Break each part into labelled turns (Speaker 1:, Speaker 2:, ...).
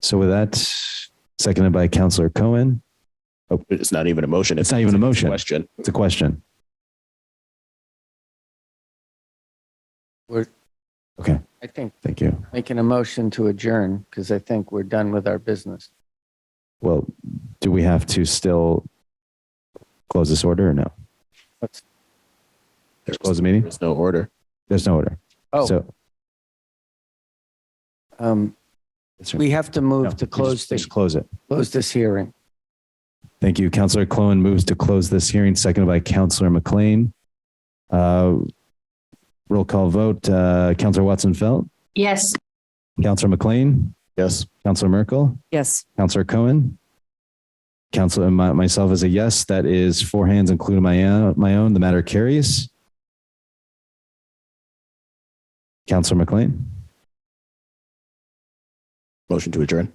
Speaker 1: So with that, seconded by Counselor Cohen,
Speaker 2: It's not even a motion.
Speaker 1: It's not even a motion.
Speaker 2: Question.
Speaker 1: it's a question.
Speaker 3: We're-
Speaker 1: Okay,
Speaker 3: I think
Speaker 1: thank you.
Speaker 3: making a motion to adjourn because I think we're done with our business.
Speaker 1: Well, do we have to still close this order or no?
Speaker 2: There's
Speaker 1: Close the meeting?
Speaker 2: there's no order.
Speaker 1: There's no order.
Speaker 3: Oh,
Speaker 1: So
Speaker 3: um, we have to
Speaker 1: No,
Speaker 3: move to
Speaker 1: we
Speaker 3: close
Speaker 1: just-
Speaker 3: this,
Speaker 1: Just close it.
Speaker 3: close this hearing.
Speaker 1: Thank you. Counselor Clowen moves to close this hearing, seconded by Counselor McLean. Uh, Roll call vote, uh, Counselor Watson Felt,
Speaker 4: Yes.
Speaker 1: Counselor McLean,
Speaker 2: Yes.
Speaker 1: Counselor Merkel,
Speaker 4: Yes.
Speaker 1: Counselor Cohen. Counselor, and my- myself as a yes, that is four hands, including my, own- my own. The matter carries. Counselor McLean,
Speaker 2: Motion to adjourn.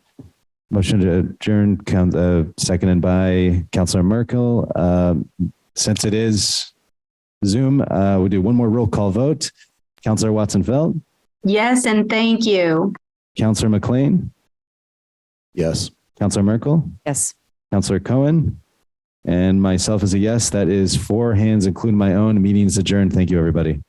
Speaker 1: motion to adjourn, coun- uh, seconded by Counselor Merkel. Um, Since it is Zoom, uh, we'll do one more roll call vote. Counselor Watson-Felt,
Speaker 4: Yes, and thank you.
Speaker 1: Counselor McLean,
Speaker 2: Yes.
Speaker 1: Counselor Merkel,
Speaker 4: Yes.
Speaker 1: Counselor Cohen, and myself as a yes, that is four hands, including my own. Meeting's adjourned. Thank you, everybody.